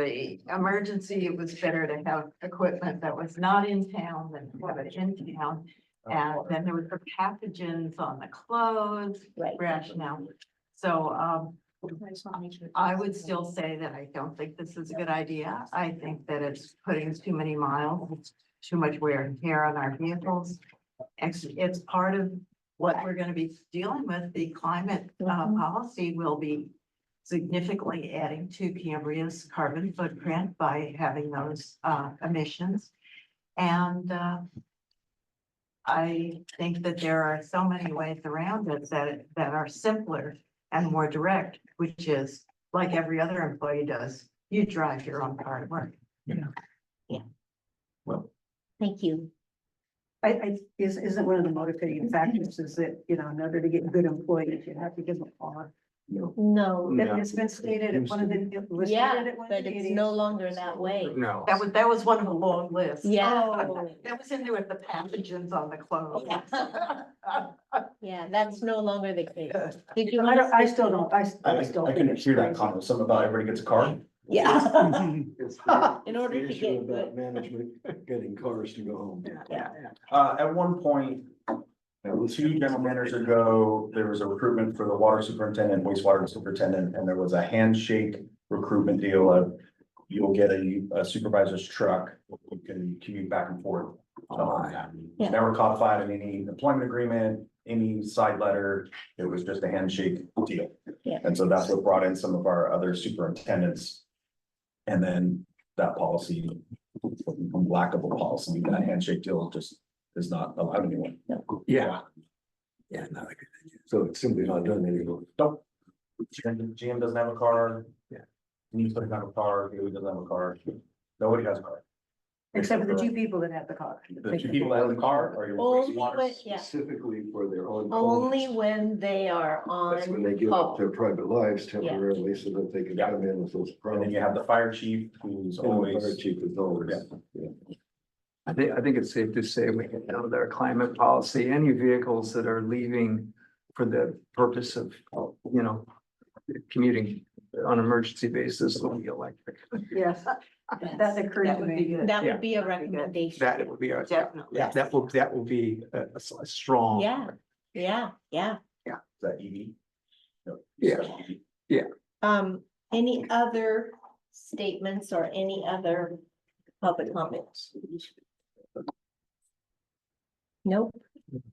the emergency, it was better to have equipment that was not in town than to have it in town. And then there was the pathogens on the clothes Right. rationale. So um, I would still say that I don't think this is a good idea. I think that it's putting too many miles, it's too much wear and tear on our vehicles. It's, it's part of what we're gonna be dealing with. The climate uh, Mhm. policy will be significantly adding to Cambria's carbon footprint by having those uh, emissions. And uh, I think that there are so many ways around it that, that are simpler and more direct, which is like every other employee does, you drive your own car to work. Well, Thank you. I, I, is, isn't one of the Mm-hmm. motivating factors is that, you know, in order to get good employees, you have to give them all. No, Yeah. It's been stated at one of the. it was yeah, stated at one of but the it's meetings. no longer that way. no. That was, that was one of the long lists. Yeah. That was in there with the pathogens on the clothes. Yeah. Yeah, that's no longer the case. Did you? I wanna don't, I say- still don't, I, s- I, I still. I think can it's hear that crazy. comment, something about everybody gets a car. Yeah. It's the- In it's order the to issue get about Management, getting cars to go home. Uh, at one point, two gentlemen years ago, there was a recruitment for the water superintendent, wastewater superintendent, and there was a handshake recruitment deal of you'll get a a supervisor's truck, you can commute back and forth. Oh, Um, Yeah. Never codified in any employment agreement, any side letter, it was just a handshake deal. Yeah. And so that's what brought in some of our other superintendents. And then that policy, lack of a policy, that handshake deal just is not allowed anymore. Yeah. Yeah, not a good idea. So it's simply not done anymore. Nope. GM GM doesn't have a car. Yeah. News doesn't have a car, Haley doesn't have a car, nobody has a car. Except for the two people that have the car. The two people that have the car are your Only wastewater. when, yeah, Specifically for their own. only homes. when they are That's when they on give up call. their private lives temporarily so that they can come in with And those then problems. you have the fire chief who's And the Fire always, chief is always. I think, I think it's safe to say we can know their climate policy, any vehicles that are leaving for the purpose of, you know, commuting on an emergency basis will be electric. Yes, that occurred That to would be me. good. That Yeah. would be That'd be a good. recommendation. That would be our, Definitely. yeah, that will, that will be a, a s- a strong. Yeah, yeah, yeah. is that E EV? No. Yeah. Um, any other statements or any other public comments? Nope,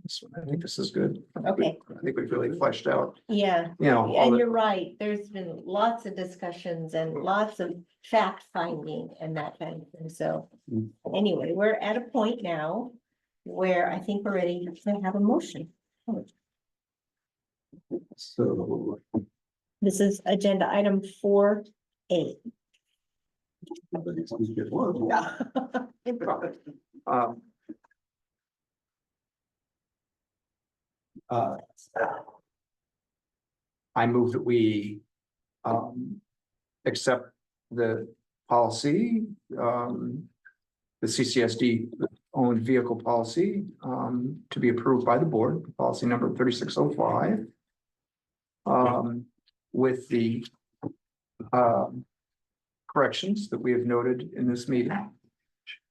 This one, I think this is good. Okay. I think we've really fleshed out, yeah. you know, all And the, Mm. you're right, there's been lots of discussions and lots of fact finding and that kind of thing, so. Mm. Anyway, we're at a point now where I think we're ready to have a motion. So This is agenda item four A. everybody's gonna get one. um, uh, I move that we um accept the policy, um the CCSD owned vehicle policy um to be approved by the board, policy number thirty-six oh five. Um, with the um corrections that we have noted in this meeting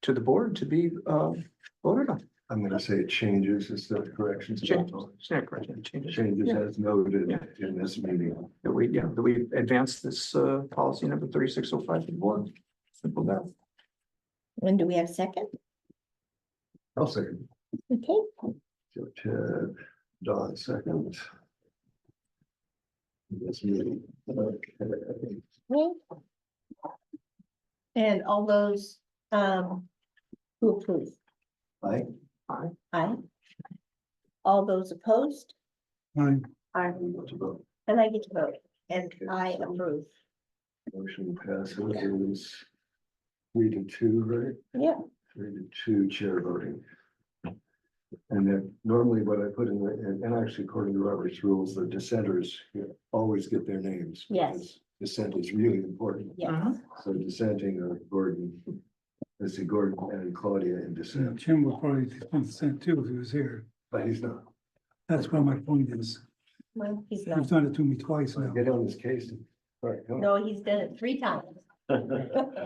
to the board to be uh voted on. I'm gonna say changes instead of corrections. Changes, Snack correction changes. Changes Yeah. as noted Yeah. in this meeting. That we, yeah, that we advance this uh policy number thirty-six oh five to the board. Simple that. When do we have second? I'll second. Okay, So Ted, Don second. This meeting. Okay. well. And all those um who approve, Aye. aye. All those opposed, I want to vote. and I get to vote, and Okay, I so- approve. Motion passes. It was Three to two, right? Yeah. Three to two chair voting. And then normally what I put in, the- and and actually according to Robert's rules, the dissenters you know, always get their names. Yes. because Dissent is really important. Yeah, Uh-huh. So dissenting are Gordon, let's see, Gordon and Claudia in Yeah, dissent, Uh, Jim would probably consent too if he was here. but he's not. That's where my point is. well, he's You've not, done it to me twice now. Get on his case. All right, come on. no, he's done it three times.